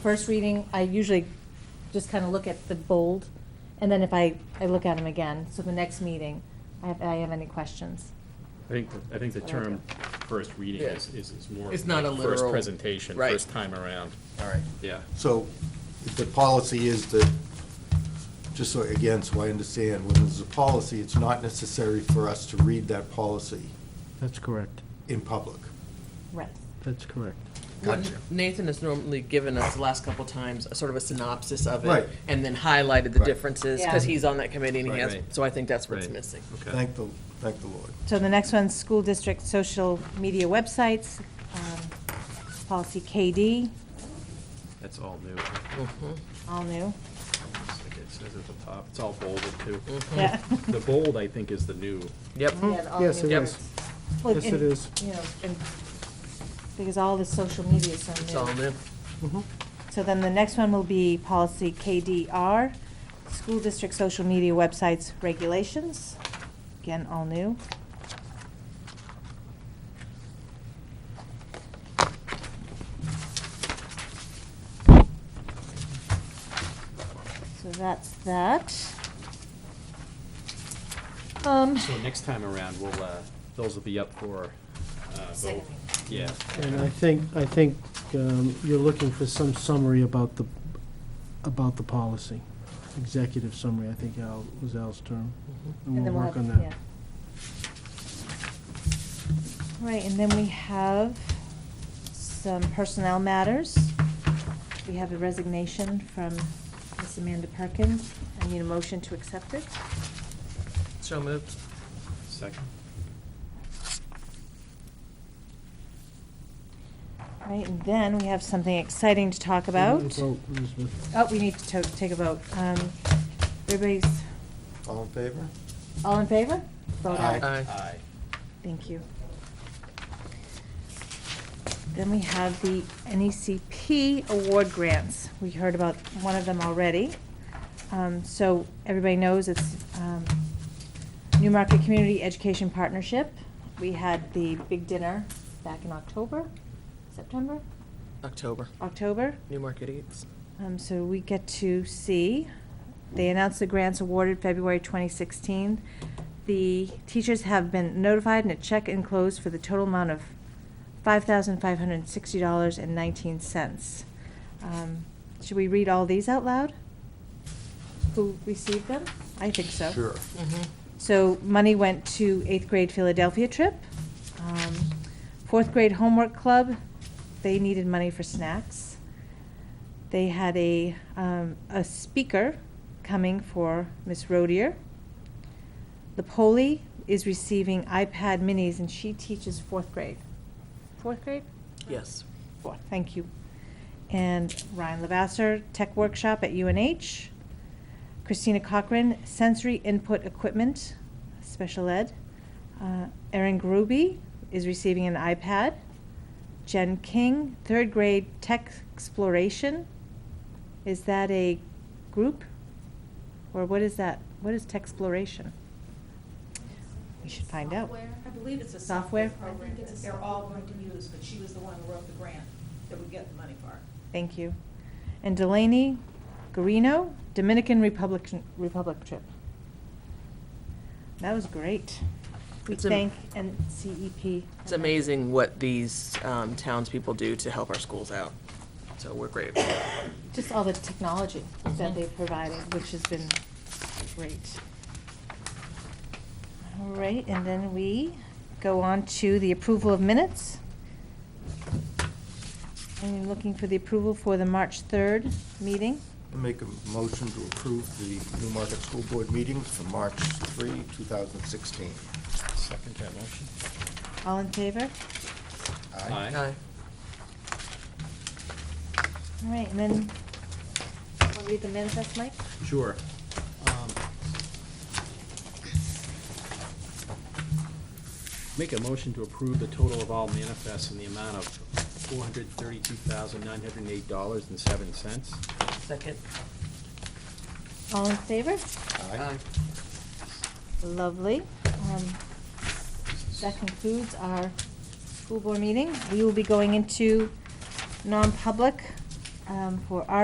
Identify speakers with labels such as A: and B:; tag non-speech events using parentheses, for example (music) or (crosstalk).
A: first reading, I usually just kind of look at the bold, and then if I, I look at them again, so the next meeting, I have, I have any questions.
B: I think, I think the term first reading
C: Yeah.
B: is, is is more.
C: It's not
B: like
C: a
B: First
C: literal-
B: presentation,
C: Right.
B: first time around,
C: All right.
B: yeah.
D: So the policy is that, just so, again, so I understand, when there's a policy, it's not necessary for us to read that policy
E: That's correct.
D: in public.
A: Right.
E: That's correct.
C: What
D: Gotcha.
C: Nathan has normally given us the last couple times, a sort of a synopsis of it.
D: Right.
C: And then highlighted the
D: Right.
C: differences, because
A: Yeah.
C: he's on that committee and he
B: Right.
C: has,
B: Right.
C: so I think that's what's
B: Right.
C: missing.
B: Okay.
D: Thank the, thank the Lord.
A: So the next one's school district social media websites, um, policy KD,
B: That's all new. Mm-hmm.
C: Mm-hmm.
A: all new.
B: It's like It says at the top, it's all bolded too.
C: Mm-hmm.
A: Yeah.
B: (laughs) The bold, I think, is the new.
C: Yep.
A: Yeah, all
E: Yes,
A: new
E: it
C: Yep.
A: words.
E: is.
A: Well,
E: Yes, it
A: and,
E: is.
A: You know, and, because all the social media is so
C: It's all new.
A: So then the next one will be policy KDR, school district social media websites regulations. Again, all new. So that's that. Um,
B: So next time around, we'll, uh, those will be up for, uh, vote.
A: Seconding.
B: Yeah.
E: And I think, I think um, you're looking for some summary about the, about the policy. Executive summary, I think Al, was Al's term. And
A: And
E: we'll
A: then
E: work
A: have-
E: on
A: yeah.
E: that.
A: Right, and then we have some personnel matters. We have a resignation from Miss Amanda Perkins. I need a motion to accept it.
C: So moved.
B: Second.
A: Right, and then we have something exciting to talk about.
E: Vote, Elizabeth.
A: Oh, we need to to- take a vote. Um, Everybody's,
D: All in favor?
A: all in favor? Vote
D: Aye.
B: Aye.
A: Thank you. Then we have the NECP award grants. We heard about one of them already. Um, So everybody knows it's um, New Market Community Education Partnership. We had the big dinner back in October, September,
C: October,
A: October.
C: New Market Eats.
A: Um, So we get to see, they announced the grants awarded February 2016. The teachers have been notified and a check enclosed for the total amount of $5,560.19. Um, Should we read all these out loud? Who received them? I think so.
D: Sure.
A: Mm-hmm. So money went to eighth grade Philadelphia trip, um, fourth grade homework club. They needed money for snacks. They had a um, a speaker coming for Miss Rodier. Poli is receiving iPad minis, and she teaches fourth grade. Fourth grade.
C: Yes.
A: Fourth. Thank you. And Ryan Lavasser, tech workshop at UNH. Christina Cochran, sensory input equipment, special ed. Uh, Erin Gruby is receiving an iPad. Jen King, third grade tech exploration. Is that a group? Or what is that? What is tech exploration? We should find out.
F: Software. I believe it's a software
A: Software?
F: program that they're all going to use, but she was the one who wrote the grant that would get the money for it.
A: Thank you. And Delaney Garino, Dominican Republic, Republic trip. That was great. We
C: It's am-
A: thank E NCEP.
C: It's amazing what these um, townspeople do to help our schools out. So we're grateful.
A: Just all the technology that
C: Mhm.
A: they provided, which has been great. All right, and then we go on to the approval of minutes. I'm looking for the approval for the March 3rd meeting.
D: I Make a motion to approve the New Market School Board meetings for March 3, 2016.
B: Second that motion.
A: All in favor?
B: Aye.
A: All right, and then, want to read the manifest, Mike?
B: Sure. Um, Make a motion to approve the total of all manifests in the amount of four hundred thirty-two thousand, nine hundred and eight dollars and seven cents.
C: Second.
A: All in favor?
D: Aye.
A: Lovely. Um, That concludes our school board meeting. We will be going into non-public um, um, for